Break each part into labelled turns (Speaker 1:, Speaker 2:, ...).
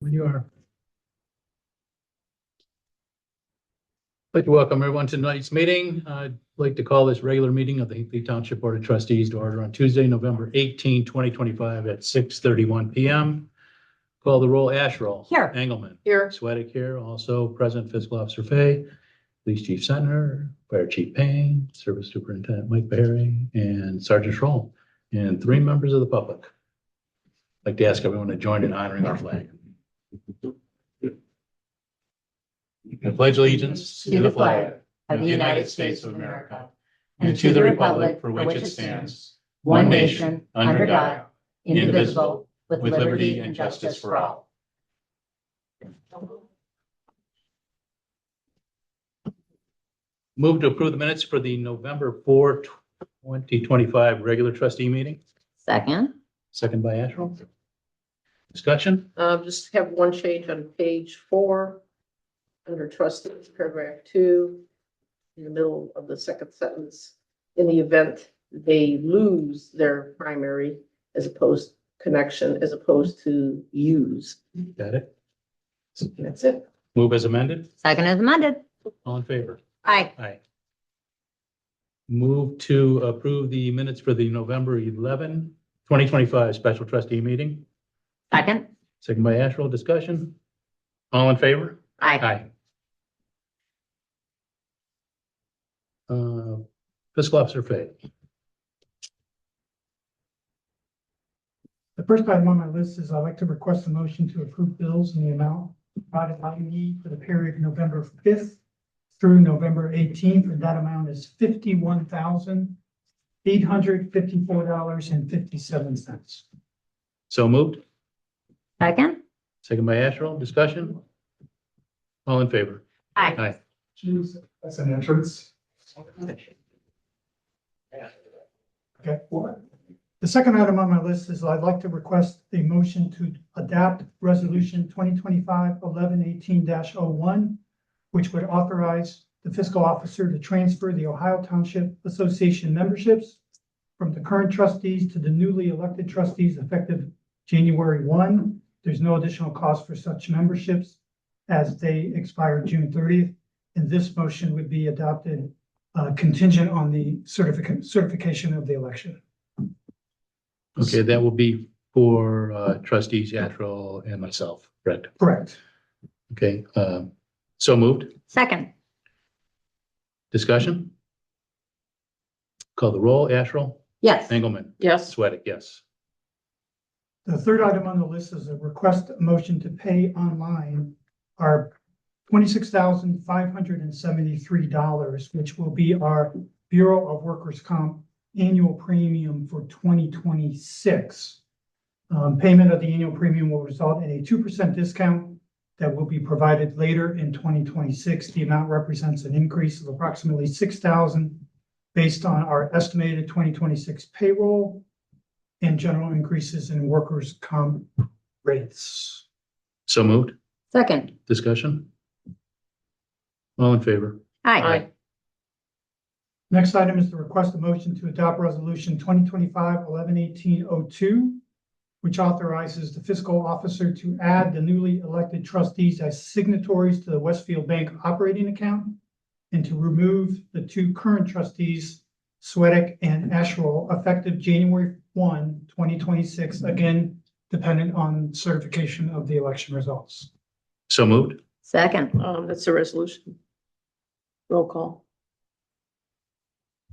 Speaker 1: when you are. I'd like to welcome everyone to tonight's meeting. I'd like to call this regular meeting of the Hinkley Township Board of Trustees to order on Tuesday, November 18, 2025 at 6:31 PM. Call the roll, Asherall.
Speaker 2: Here.
Speaker 1: Engelmann.
Speaker 2: Here.
Speaker 1: Sweattick here, also present fiscal officer Fay, police chief Senator, fire chief Payne, service superintendent Mike Berry, and Sergeant Schroll, and three members of the public. I'd Like to ask everyone to join in honoring our flag. I pledge allegiance to the flag
Speaker 2: of the United States of America and to the republic for which it stands, one nation, under God, indivisible, with liberty and justice for all.
Speaker 1: Move to approve the minutes for the November 4, 2025 regular trustee meeting,
Speaker 2: Second.
Speaker 1: second by Asherall. Discussion?
Speaker 3: Um, just have one change on page four. Under trustees, paragraph two, in the middle of the second sentence. In the event they lose their primary as opposed connection, as opposed to use.
Speaker 1: Got it?
Speaker 3: That's it.
Speaker 1: Move as amended?
Speaker 2: Second is amended.
Speaker 1: All in favor?
Speaker 2: Aye.
Speaker 1: Aye. Move to approve the minutes for the November 11, 2025 special trustee meeting,
Speaker 2: Second.
Speaker 1: second by Asherall. Discussion? All in favor?
Speaker 2: Aye.
Speaker 1: Aye. Uh, Fiscal Officer Fay.
Speaker 4: The first item on my list is I'd like to request a motion to approve bills in the amount provided by me for the period November fifth through November eighteenth, and that amount is fifty-one thousand eight hundred fifty-four dollars and fifty-seven cents.
Speaker 1: So moved.
Speaker 2: Second.
Speaker 1: Second by Asherall. Discussion? All in favor?
Speaker 2: Aye.
Speaker 1: Aye.
Speaker 4: Jeez, that's an entrance. Okay, what? The second item on my list is I'd like to request a motion to adapt Resolution 2025 1118 oh one, which would authorize the fiscal officer to transfer the Ohio Township Association memberships from the current trustees to the newly elected trustees effective January one. There's no additional cost for such memberships as they expire June thirtieth. And this motion would be adopted uh, contingent on the certificate, certification of the election.
Speaker 1: Okay, that will be for uh, trustees Asherall and myself, correct?
Speaker 4: Correct.
Speaker 1: Okay, um, so moved.
Speaker 2: Second.
Speaker 1: Discussion? Call the roll. Asherall?
Speaker 2: Yes.
Speaker 1: Engelmann?
Speaker 3: Yes,
Speaker 1: Sweattick, yes.
Speaker 4: The third item on the list is a request motion to pay online our twenty-six thousand five hundred and seventy-three dollars, which will be our Bureau of Workers' Comp annual premium for twenty twenty-six. Um, payment of the annual premium will result in a two percent discount that will be provided later in twenty twenty-six. The amount represents an increase of approximately six thousand based on our estimated twenty twenty-six payroll and general increases in workers' comp rates.
Speaker 1: So moved.
Speaker 2: Second.
Speaker 1: Discussion? All in favor?
Speaker 2: Aye.
Speaker 3: aye,
Speaker 4: Next item is the request of motion to adopt resolution 2025 1118 oh which authorizes the fiscal officer to add the newly elected trustees as signatories to the Westfield Bank operating account and to remove the two current trustees, Sweattick and Asherall, effective January 1, 2026. again, dependent on certification of the election results.
Speaker 1: So moved.
Speaker 2: Second.
Speaker 3: um, that's the resolution. Roll call.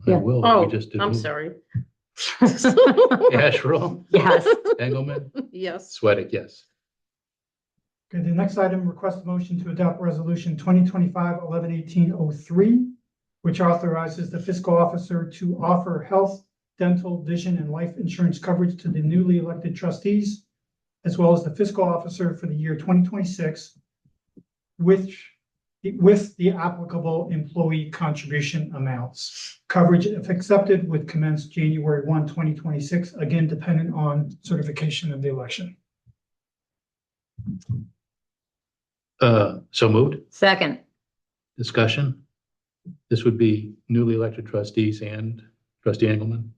Speaker 1: I
Speaker 2: Yeah.
Speaker 1: will.
Speaker 3: Oh,
Speaker 1: We just did
Speaker 3: I'm
Speaker 1: move.
Speaker 3: sorry.
Speaker 1: Asherall?
Speaker 2: Yes.
Speaker 1: Engelmann?
Speaker 3: Yes,
Speaker 1: Sweattick, yes.
Speaker 4: Okay, the next item, request a motion to adopt resolution 2025 1118 eleven eighteen oh three, which authorizes the fiscal officer to offer health, dental, vision, and life insurance coverage to the newly elected trustees, as well as the fiscal officer for the year twenty twenty-six, which, with the applicable employee contribution amounts. Coverage, if accepted, would commence January 1, 2026, again dependent on certification of the election.
Speaker 1: Uh, so moved.
Speaker 2: Second.
Speaker 1: Discussion. This would be newly elected trustees and trustee Engelmann.